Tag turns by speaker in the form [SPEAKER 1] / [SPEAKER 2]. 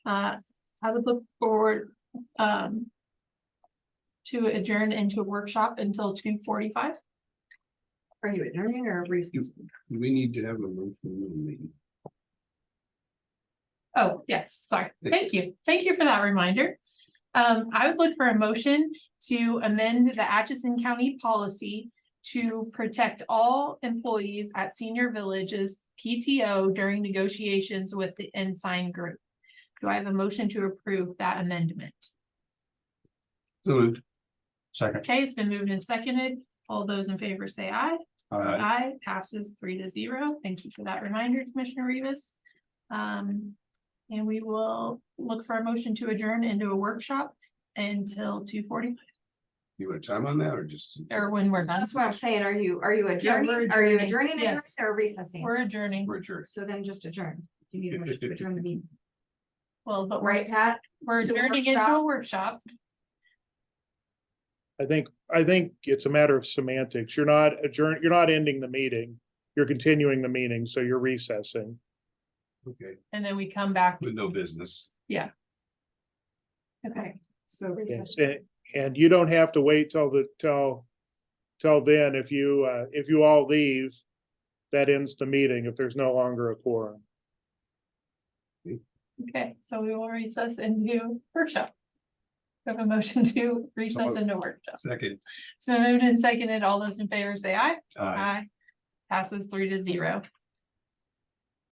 [SPEAKER 1] Uh, I would look forward, um. To adjourn into workshop until two forty-five.
[SPEAKER 2] Are you adjourning or recess?
[SPEAKER 3] We need to have a room for the meeting.
[SPEAKER 1] Oh, yes, sorry. Thank you. Thank you for that reminder. Um, I would look for a motion to amend the Atchison County policy to protect all employees at senior villages PTO during negotiations with the Ensign Group. Do I have a motion to approve that amendment?
[SPEAKER 3] So moved. Second.
[SPEAKER 1] Okay, it's been moved and seconded. All those in favor say aye.
[SPEAKER 3] Uh,
[SPEAKER 1] Aye, passes three to zero. Thank you for that reminder, Commissioner Rivas. Um, and we will look for a motion to adjourn into a workshop until two forty,
[SPEAKER 3] you want time on that or just?
[SPEAKER 1] or when we're done.
[SPEAKER 2] That's what I'm saying. Are you, are you
[SPEAKER 1] we're
[SPEAKER 2] adjourning? Are you
[SPEAKER 1] adjourning.
[SPEAKER 2] adjourning, adjourning
[SPEAKER 1] Yes.
[SPEAKER 2] or recessing?
[SPEAKER 1] We're adjourning,
[SPEAKER 3] We're adjourned.
[SPEAKER 2] So then just adjourn. You need a motion to adjourn the meeting,
[SPEAKER 1] well, but we're,
[SPEAKER 2] right, Pat?
[SPEAKER 1] we're
[SPEAKER 2] To
[SPEAKER 1] adjourning into a
[SPEAKER 2] workshop?
[SPEAKER 1] workshop.
[SPEAKER 4] I think, I think it's a matter of semantics. You're not adjourn, you're not ending the meeting. You're continuing the meeting, so you're recessing.
[SPEAKER 3] Okay,
[SPEAKER 1] And then we come back.
[SPEAKER 3] with no business.
[SPEAKER 1] Okay.
[SPEAKER 2] So
[SPEAKER 4] Yes,
[SPEAKER 2] recess.
[SPEAKER 4] And, and you don't have to wait till the, till, till then. If you, uh, if you all leave, that ends the meeting if there's no longer a quorum.
[SPEAKER 1] Okay, so we will recess into workshop. We Have a motion to recess
[SPEAKER 3] moved.
[SPEAKER 1] into workshop.
[SPEAKER 3] Second.
[SPEAKER 1] It's been moved and seconded. All those in favor say aye.
[SPEAKER 3] Uh,
[SPEAKER 1] Aye. Passes three to zero.